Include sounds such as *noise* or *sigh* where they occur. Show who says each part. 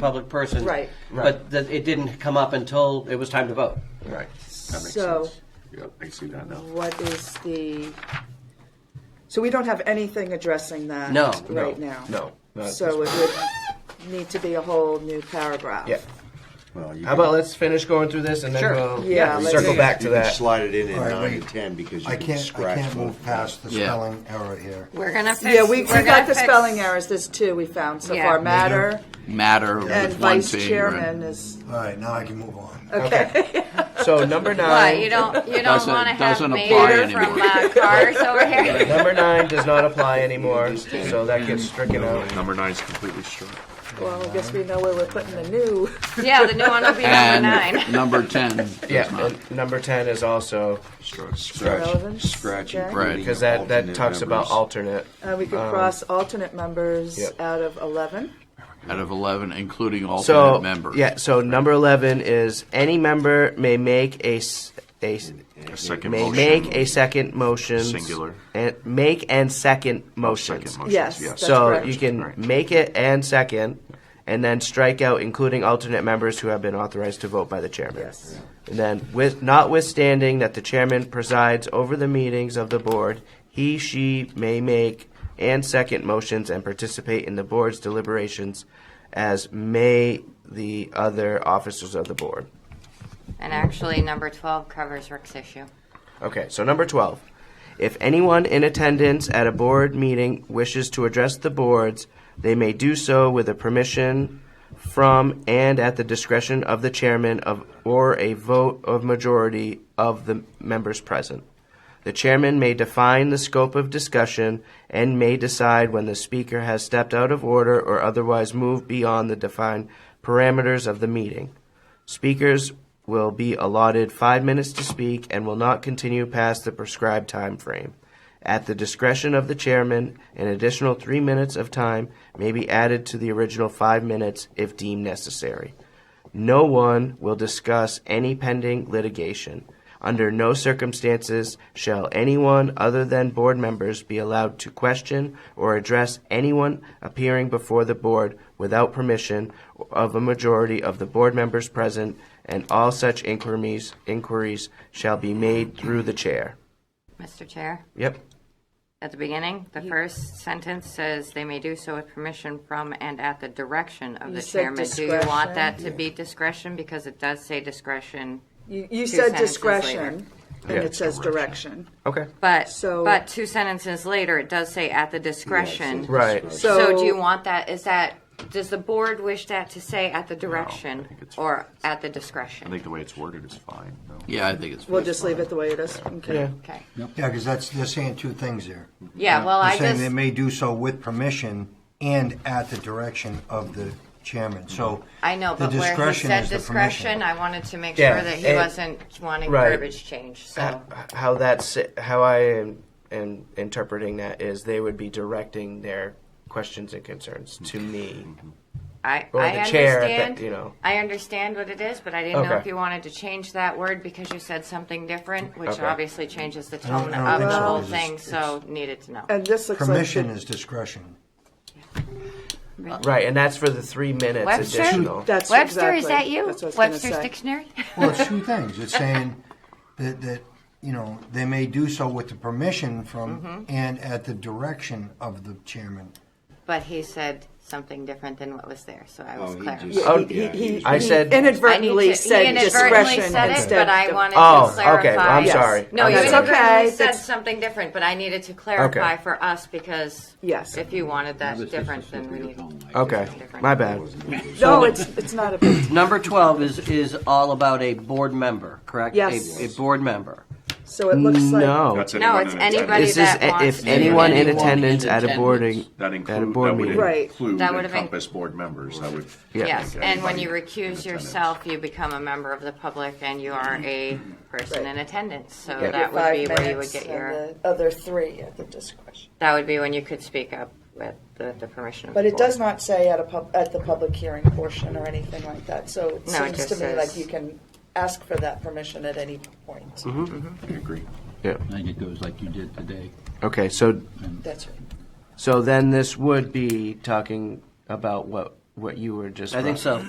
Speaker 1: public person.
Speaker 2: Right.
Speaker 1: But that it didn't come up until it was time to vote.
Speaker 3: Right. That makes
Speaker 2: So-
Speaker 3: sense. Yep, I see that now.
Speaker 2: What is the, so we don't have anything addressing that
Speaker 1: No,
Speaker 3: No,
Speaker 2: right now?
Speaker 3: No. not at
Speaker 2: So
Speaker 3: this-
Speaker 2: it would need to be a whole new paragraph?
Speaker 3: Yeah.
Speaker 4: Well, you
Speaker 3: How about let's finish going through this and then
Speaker 1: Sure.
Speaker 3: we'll
Speaker 2: Yeah, let's
Speaker 3: circle
Speaker 2: do
Speaker 3: back
Speaker 4: can-
Speaker 3: to
Speaker 4: you can
Speaker 3: that.
Speaker 4: slide it in at
Speaker 5: All right,
Speaker 4: nine
Speaker 5: wait.
Speaker 4: and ten because you
Speaker 5: I
Speaker 4: can
Speaker 5: can't, I
Speaker 4: scratch.
Speaker 5: can't
Speaker 4: both.
Speaker 5: move past the
Speaker 6: Yeah.
Speaker 5: spelling error here.
Speaker 7: We're gonna fix.
Speaker 2: Yeah, we, we
Speaker 7: we're
Speaker 2: got
Speaker 7: gonna
Speaker 2: the
Speaker 7: fix-
Speaker 2: spelling errors, there's two we found so
Speaker 7: Yeah.
Speaker 3: Mhm.
Speaker 2: far, matter
Speaker 6: matter
Speaker 2: and
Speaker 6: with one
Speaker 2: vice
Speaker 6: thing.
Speaker 2: chairman is,
Speaker 5: All right, now I can move on.
Speaker 2: okay. *laughs*
Speaker 3: So number
Speaker 7: What,
Speaker 3: nine,
Speaker 7: you don't, you don't
Speaker 6: Doesn't-
Speaker 7: want to have
Speaker 6: doesn't apply
Speaker 7: mayor from
Speaker 6: anymore.
Speaker 7: uh, cars over here?
Speaker 3: number nine does not apply anymore, so that gets stricken out.
Speaker 8: Number nine is completely struck.
Speaker 2: Well, I guess we know where we're putting the new,
Speaker 7: Yeah, the new one will be number
Speaker 6: And *laughs*
Speaker 7: nine.
Speaker 6: number 10 does
Speaker 3: Yeah,
Speaker 6: not.
Speaker 3: and number ten is also
Speaker 8: Struck.
Speaker 4: Scratch,
Speaker 2: Relevance,
Speaker 4: scratch
Speaker 2: okay.
Speaker 6: Right,
Speaker 4: including
Speaker 3: because that, that
Speaker 4: alternate
Speaker 3: talks about
Speaker 4: members.
Speaker 3: alternate.
Speaker 2: uh, we could
Speaker 3: Um,
Speaker 2: cross alternate members
Speaker 3: Yep.
Speaker 2: out of 11.
Speaker 6: Out of 11, including alternate
Speaker 3: So
Speaker 6: members.
Speaker 3: yeah, so number eleven is any member may make a s- a s-
Speaker 8: A second
Speaker 3: may
Speaker 8: motion.
Speaker 3: make a second motion
Speaker 8: Singular.
Speaker 3: and make and second motions.
Speaker 8: Second motion.
Speaker 2: Yes,
Speaker 8: Yes.
Speaker 2: that's
Speaker 3: so
Speaker 2: correct.
Speaker 3: you can
Speaker 8: Right.
Speaker 3: make it and second, and then strike out including alternate members who have been authorized to vote by the chairman.
Speaker 2: Yes.
Speaker 3: And then, with notwithstanding that the chairman presides over the meetings of the board, he she may make and second motions and participate in the board's deliberations, as may the other officers of the board.
Speaker 7: And actually, number twelve covers Rick's issue.
Speaker 3: Okay, so number 12. If anyone in attendance at a board meeting wishes to address the boards, they may do so with a permission from and at the discretion of the chairman of or a vote of majority of the members present. The chairman may define the scope of discussion and may decide when the speaker has stepped out of order or otherwise moved beyond the defined parameters of the meeting. Speakers will be allotted five minutes to speak and will not continue past the prescribed time frame. At the discretion of the chairman, an additional three minutes of time may be added to the original five minutes if deemed necessary. No one will discuss any pending litigation. Under no circumstances shall anyone other than board members be allowed to question or address anyone appearing before the board without permission of a majority of the board members present, and all such inquiries, inquiries shall be made through the chair.
Speaker 7: Mr. Chair,
Speaker 3: Yep.
Speaker 7: at the beginning, the first sentence says they may do so with permission from and at the direction of
Speaker 2: You
Speaker 7: the
Speaker 2: said
Speaker 7: chairman. Do you want
Speaker 2: discretion.
Speaker 7: that to be discretion? Because it does say discretion.
Speaker 2: You, you
Speaker 7: Two
Speaker 2: said
Speaker 7: sentences later.
Speaker 2: discretion, and it says direction.
Speaker 3: Okay.
Speaker 7: But,
Speaker 2: So-
Speaker 7: but two sentences later, it does say at the discretion.
Speaker 3: Right.
Speaker 7: So do you want that, is that, does the board wish that to say at the direction
Speaker 8: think it's-
Speaker 7: or at the
Speaker 8: I
Speaker 7: discretion?
Speaker 8: think the way it's worded is fine. though.
Speaker 6: Yeah, I think it's
Speaker 2: We'll just leave it the way it is, okay?
Speaker 7: Okay.
Speaker 5: Yeah, because that's, they're saying two things here.
Speaker 7: Yeah, well, I
Speaker 5: They're saying they
Speaker 7: just,
Speaker 5: may do so with permission and at the direction of the chairman, so.
Speaker 7: I know,
Speaker 5: the
Speaker 7: but where he
Speaker 5: discretion
Speaker 7: said
Speaker 5: is the
Speaker 7: discretion,
Speaker 5: permission.
Speaker 7: I wanted to make
Speaker 3: Yeah,
Speaker 7: sure that he
Speaker 3: and-
Speaker 7: wasn't wanting
Speaker 3: right.
Speaker 7: verbiage change, so.
Speaker 3: How that's how I am, am interpreting that is they would be directing their questions and concerns to me.
Speaker 7: I,
Speaker 3: Or
Speaker 7: I
Speaker 3: the chair, that-
Speaker 7: understand,
Speaker 3: you know.
Speaker 7: I understand what it is, but I didn't know
Speaker 3: Okay.
Speaker 7: if you wanted to change that word because you said something different, which
Speaker 3: Okay.
Speaker 7: obviously changes the
Speaker 5: don't-
Speaker 7: tone
Speaker 5: I don't
Speaker 7: of
Speaker 5: think
Speaker 7: the
Speaker 5: so,
Speaker 7: whole
Speaker 5: because it's-
Speaker 7: thing, so needed to know.
Speaker 2: And this looks like. the-
Speaker 5: Permission is discretion.
Speaker 3: Right, and that's for the three minutes
Speaker 7: Webster?
Speaker 3: additional.
Speaker 2: That's
Speaker 7: Webster, is
Speaker 2: exactly-
Speaker 7: that you?
Speaker 2: that's what I was gonna
Speaker 7: Webster's
Speaker 2: say.
Speaker 7: dictionary? *laughs*
Speaker 5: Well, it's two things. It's saying that, that, you know, they may do so with the permission
Speaker 7: Mm-hmm.
Speaker 5: from and at the direction of the chairman.
Speaker 7: But he said something different than what was there, so I was
Speaker 4: Oh, he
Speaker 7: clear.
Speaker 4: just-
Speaker 3: Oh,
Speaker 2: He- he- he-
Speaker 3: I said-
Speaker 2: He
Speaker 7: I need to-
Speaker 2: inadvertently
Speaker 7: he
Speaker 2: said
Speaker 7: inadvertently
Speaker 2: discretion
Speaker 7: said it,
Speaker 2: instead
Speaker 7: but I
Speaker 2: of-
Speaker 7: wanted
Speaker 3: Oh,
Speaker 7: to
Speaker 3: okay, well,
Speaker 7: clarify.
Speaker 3: I'm sorry.
Speaker 7: No,
Speaker 3: I'm
Speaker 7: you
Speaker 3: sorry.
Speaker 2: That's okay,
Speaker 7: inadvertently said
Speaker 2: that's-
Speaker 7: something different, but I needed to clarify for us because
Speaker 2: Yes.
Speaker 7: if you wanted that different, then we need.
Speaker 3: Okay,
Speaker 7: different.
Speaker 3: my bad.
Speaker 2: No, it's, it's not a big,
Speaker 1: Number 12 is, is all about a board member, correct?
Speaker 2: Yes.
Speaker 1: A, a board member.
Speaker 2: so it looks like.
Speaker 3: No,
Speaker 8: That's
Speaker 7: No,
Speaker 8: anyone
Speaker 7: it's
Speaker 8: in attendance.
Speaker 7: anybody
Speaker 3: this is
Speaker 7: that
Speaker 3: a-
Speaker 7: wants
Speaker 3: if
Speaker 7: to-
Speaker 3: anyone in
Speaker 6: Anyone in
Speaker 3: attendance at a
Speaker 6: attendance.
Speaker 3: boarding
Speaker 8: That
Speaker 3: at a
Speaker 8: include,
Speaker 3: board
Speaker 8: that would
Speaker 3: meeting.
Speaker 2: Right.
Speaker 8: include
Speaker 7: That would've been-
Speaker 8: encompass board members, I would.
Speaker 3: Yeah.
Speaker 7: Yes,
Speaker 8: think
Speaker 7: and when
Speaker 8: anybody
Speaker 7: you
Speaker 8: in
Speaker 7: recuse
Speaker 8: attendance.
Speaker 7: yourself, you become a member of the public and you are a person in attendance, so
Speaker 3: Yeah.
Speaker 7: that would
Speaker 2: Five
Speaker 7: be where you would
Speaker 2: minutes
Speaker 7: get
Speaker 2: and
Speaker 7: your,
Speaker 2: the Other three at the discretion.
Speaker 7: that would be when you could speak up with the, the permission of the
Speaker 2: But it
Speaker 7: board.
Speaker 2: does not say at a pub, at the public hearing portion or anything like that, so it
Speaker 7: No, it
Speaker 2: seems to
Speaker 7: just
Speaker 2: me
Speaker 7: says-
Speaker 2: like you can ask for that permission at any point.
Speaker 3: Mm-hmm.
Speaker 8: I agree.
Speaker 6: I think it goes like you did today.
Speaker 3: Okay, so
Speaker 2: That's right.
Speaker 3: so then this would be talking about what
Speaker 9: what you were just.
Speaker 3: I think so.